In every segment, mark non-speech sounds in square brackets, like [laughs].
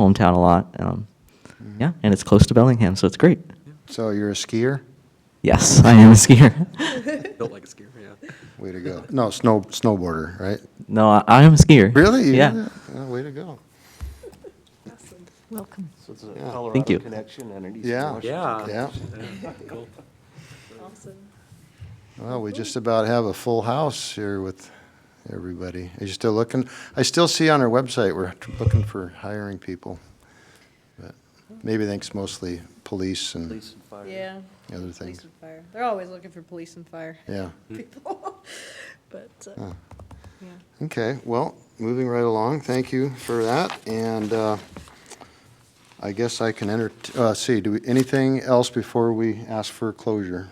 hometown a lot. Um, Mm-hmm. Yeah, and it's close to Bellingham, so it's great. So you're a skier? Yes, I am a skier. [laughs] Built like a skier, yeah. Way to go. No, snow, snowboarder, right? no, I, I am a skier. Really? You- Yeah. yeah, Way to go. Welcome. So it's a Yeah. Thank you. Colorado connection and an Eastern Yeah. Washington Yeah. Yeah. Cool. Well, we just about have a full house here with everybody. Are you still looking? I still see on our website, we're looking for hiring people. But Maybe thanks mostly police and Police and fire. Yeah. other Police things. and fire. They're always looking for police and fire Yeah. people. But, uh, Huh. yeah. Okay, well, moving right along, thank you for that, and uh, I guess I can enter, uh, see, do we, anything else before we ask for closure?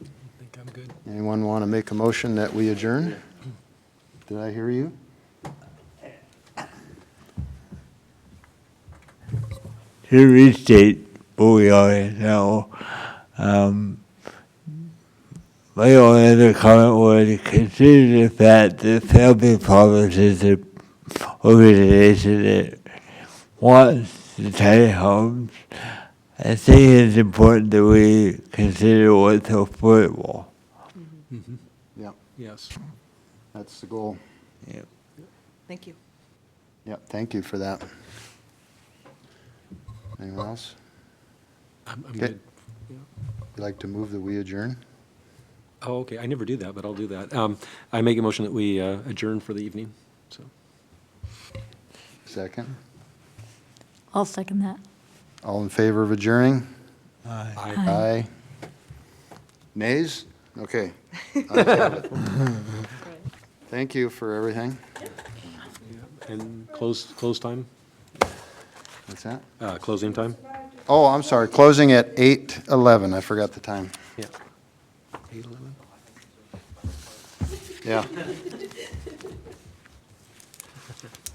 I think I'm good. Anyone want to make a motion that we adjourn? Did I hear you? to restate where we are now, um, my only other comment would consider the fact that family Promise is an organization that wants the tiny homes. I think it's important that we consider what's affordable. Yep, Yes. that's the goal. Yep. Thank you. Yep, thank you for that. Anyone else? I'm, I'm Okay. good. You'd like to move that we adjourn? Oh, okay. I never do that, but I'll do that. Um, I make a motion that we uh, adjourn for the evening, so. Second? I'll second that. All in favor of adjourning? Aye. Aye. Nays? Okay. [laughs] [laughs] Right. Thank you for everything. And close, close time, What's that? uh, closing time? Oh, I'm sorry, closing at 8:11, I forgot the time. Yeah. Eight eleven? Yeah.